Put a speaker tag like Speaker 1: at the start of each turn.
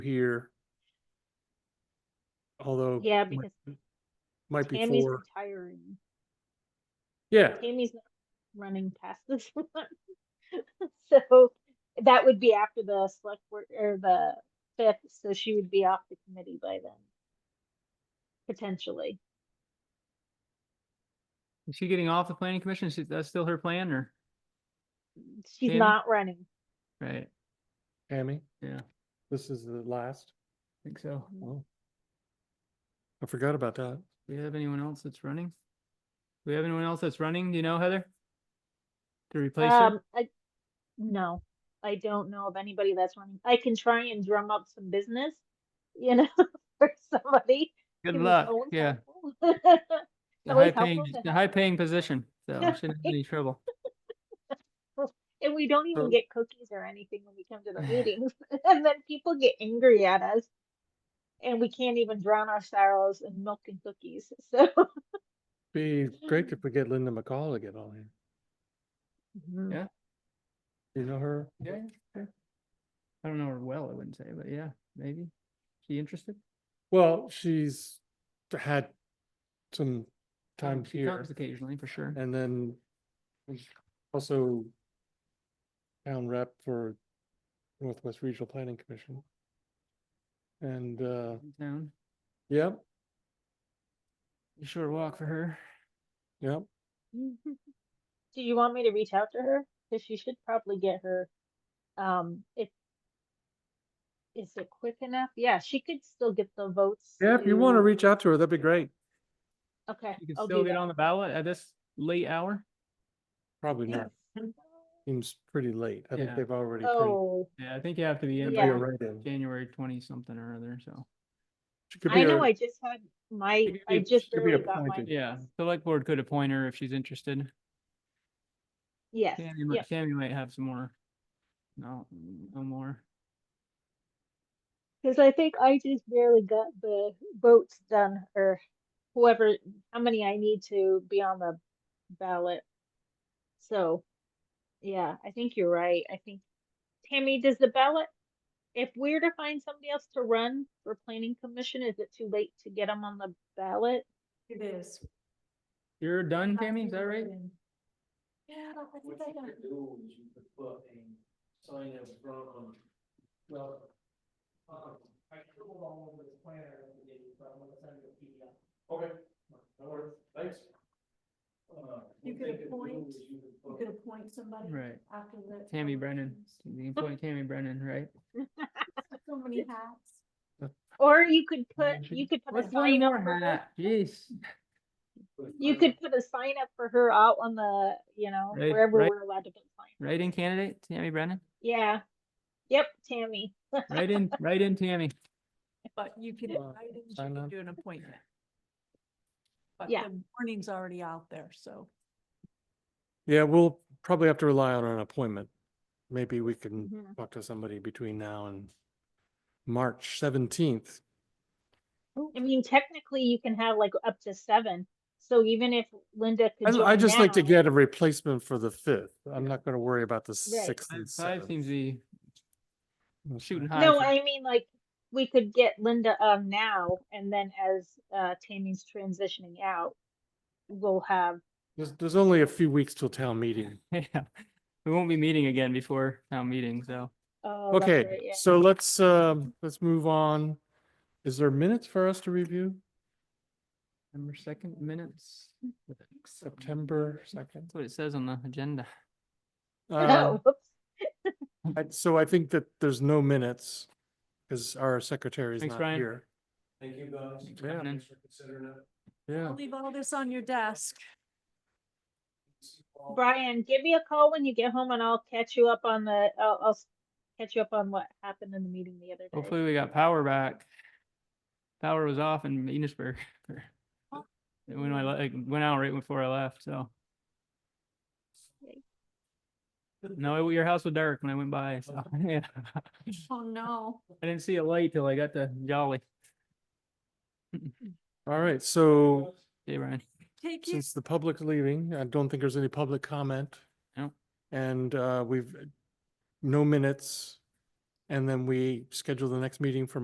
Speaker 1: here. Although.
Speaker 2: Yeah,
Speaker 1: might-
Speaker 2: because
Speaker 1: Might be
Speaker 2: Tammy's
Speaker 1: four,
Speaker 2: retiring.
Speaker 1: yeah,
Speaker 2: Tammy's not running past this one. So that would be after the select board or the fifth, so she would be off the committee by then. Potentially.
Speaker 3: Is she getting off the planning commission? Is that's still her plan or?
Speaker 2: She's
Speaker 3: Tammy?
Speaker 2: not running.
Speaker 3: Right,
Speaker 1: Tammy,
Speaker 3: yeah, I
Speaker 1: this is the last.
Speaker 3: think so.
Speaker 1: Oh. I forgot about that.
Speaker 3: Do we have anyone else that's running? Do we have anyone else that's running? Do you know Heather? To replace
Speaker 2: Um,
Speaker 3: her?
Speaker 2: I, no, I don't know of anybody that's running. I can try and drum up some business, you know, for somebody.
Speaker 3: Good
Speaker 2: who is
Speaker 3: luck,
Speaker 2: always
Speaker 3: yeah.
Speaker 2: helpful.
Speaker 3: The
Speaker 2: always
Speaker 3: high paying,
Speaker 2: helpful to
Speaker 3: the
Speaker 2: have
Speaker 3: high paying position, so shouldn't have any trouble.
Speaker 2: And we don't even
Speaker 1: So-
Speaker 2: get cookies or anything when we come to the meetings. And then people get angry at us. And we can't even drown our sorrows in milk and cookies. So
Speaker 1: Be great if we get Linda McCall to get on here.
Speaker 2: Mhm.
Speaker 3: Yeah.
Speaker 1: You know her?
Speaker 3: Yeah, yeah. I don't know her well, I wouldn't say, but yeah, maybe. She interested?
Speaker 1: Well, she's had some time
Speaker 3: She
Speaker 1: here
Speaker 3: comes Occasionally, for sure.
Speaker 1: and then was also town rep for Northwest Regional Planning Commission. And, uh,
Speaker 3: In Town,
Speaker 1: yep,
Speaker 3: a short walk for her.
Speaker 1: yep.
Speaker 2: Do you want me to reach out to her? Because she should probably get her, um, if is it quick enough? Yeah, she could still get the votes.
Speaker 1: Yeah, if you want to
Speaker 2: to-
Speaker 1: reach out to her, that'd be great.
Speaker 2: Okay,
Speaker 3: You can
Speaker 2: I'll
Speaker 3: still
Speaker 2: do
Speaker 3: get
Speaker 2: that.
Speaker 3: on the ballot at this late hour?
Speaker 1: Probably not. Seems pretty late. I think
Speaker 3: Yeah.
Speaker 1: they've already. pre-
Speaker 2: Oh,
Speaker 3: Yeah, I think you have to be in
Speaker 1: they'd be
Speaker 2: Yeah.
Speaker 3: by
Speaker 1: already-
Speaker 3: January twenty something or other, so.
Speaker 1: she could be
Speaker 2: I know
Speaker 1: a-
Speaker 2: I just had my,
Speaker 1: could
Speaker 2: I
Speaker 1: be-
Speaker 2: just
Speaker 1: she could be
Speaker 2: barely got my.
Speaker 1: appointed.
Speaker 3: Yeah, select board could appoint her if she's interested.
Speaker 2: Yes,
Speaker 3: Tammy,
Speaker 2: yeah,
Speaker 3: might- Tammy might have some more. No, no more.
Speaker 2: Because I think I just barely got the votes done or whoever, how many I need to be on the ballot. So, yeah, I think you're right. I think Tammy, does the ballot, if we're to find somebody else to run for planning commission, is it too late to get them on the ballot?
Speaker 4: It is.
Speaker 3: You're done, Tammy, is that right?
Speaker 4: Yeah, I think
Speaker 5: What
Speaker 4: I
Speaker 5: you
Speaker 4: got
Speaker 5: could do is you could put a sign up front on, well, um, I can go along with this planner, and get it, but I'm gonna send you a PDF. Okay, no worries, thanks. Uh,
Speaker 4: You
Speaker 5: what
Speaker 4: could
Speaker 5: they do
Speaker 4: appoint-
Speaker 5: is you could
Speaker 4: You
Speaker 5: put-
Speaker 4: could appoint somebody.
Speaker 3: Right.
Speaker 4: After the.
Speaker 3: Tammy Brennan. You can appoint Tammy Brennan, right?
Speaker 4: So many hats.
Speaker 2: Or you could put,
Speaker 1: she-
Speaker 2: you could put a
Speaker 3: What's one
Speaker 2: sign up
Speaker 3: more
Speaker 2: for her.
Speaker 3: hat? Ah, Jeez.
Speaker 5: put a
Speaker 2: You
Speaker 5: sign
Speaker 2: could
Speaker 5: up.
Speaker 2: put a sign up for her out on the, you know,
Speaker 3: Right,
Speaker 2: wherever
Speaker 3: right.
Speaker 2: we're allowed to put signs.
Speaker 3: Write-in candidate, Tammy Brennan?
Speaker 2: Yeah. Yep, Tammy.
Speaker 3: Write-in, write-in Tammy.
Speaker 4: But you can,
Speaker 1: Uh,
Speaker 4: I think you
Speaker 1: sign
Speaker 4: can
Speaker 1: up.
Speaker 4: do an appointment. But
Speaker 2: Yeah.
Speaker 4: the warning's already out there, so.
Speaker 1: Yeah, we'll probably have to rely on an appointment. Maybe we can
Speaker 2: Mhm.
Speaker 1: talk to somebody between now and March seventeenth.
Speaker 2: I mean, technically, you can have like up to seven. So even if Linda could
Speaker 1: I, I
Speaker 2: join
Speaker 1: just like to
Speaker 2: now-
Speaker 1: get a replacement for the fifth. I'm not gonna worry about the sixth
Speaker 3: Five-
Speaker 1: and
Speaker 3: Five
Speaker 1: seventh.
Speaker 3: seems to be
Speaker 1: That's
Speaker 3: shooting
Speaker 1: fine.
Speaker 3: high.
Speaker 2: No,
Speaker 3: for-
Speaker 2: I mean, like, we could get Linda um now, and then as uh Tammy's transitioning out, we'll have,
Speaker 1: There's, there's only a few weeks till town meeting.
Speaker 3: Yeah. We won't be meeting again before town meeting, so.
Speaker 2: uh, that's right,
Speaker 1: Okay,
Speaker 2: yeah.
Speaker 1: so let's, um, let's move on. Is there minutes for us to review?
Speaker 3: September second minutes.
Speaker 1: September second? Um,
Speaker 3: That's what it says on the agenda.
Speaker 2: Oh, whoops.
Speaker 1: I- So I think that there's no minutes because our secretary is
Speaker 3: Thanks,
Speaker 1: not
Speaker 3: Ryan.
Speaker 1: here.
Speaker 5: Thank you guys.
Speaker 3: Thanks for coming in.
Speaker 5: Thanks for considering it.
Speaker 1: Yeah.
Speaker 4: I'll leave all this on your desk.
Speaker 5: See you all.
Speaker 2: Brian, give me a call when you get home and I'll catch you up on the, I'll, I'll s- catch you up on what happened in the meeting the other day.
Speaker 3: Hopefully we got power back. Power was off in Enosburg. for-
Speaker 4: Oh.
Speaker 3: When I, le- like, went out right before I left, so.
Speaker 2: Yikes.
Speaker 3: No, your house was dark when I went by, so, yeah.
Speaker 4: Oh, no.
Speaker 3: I didn't see a light till I got to Jolly.
Speaker 1: All right, so
Speaker 3: Hey, Ryan.
Speaker 4: Take you.
Speaker 1: since the public's leaving, I don't think there's any public comment.
Speaker 3: No.
Speaker 1: And uh, we've, no minutes. And then we schedule the next meeting for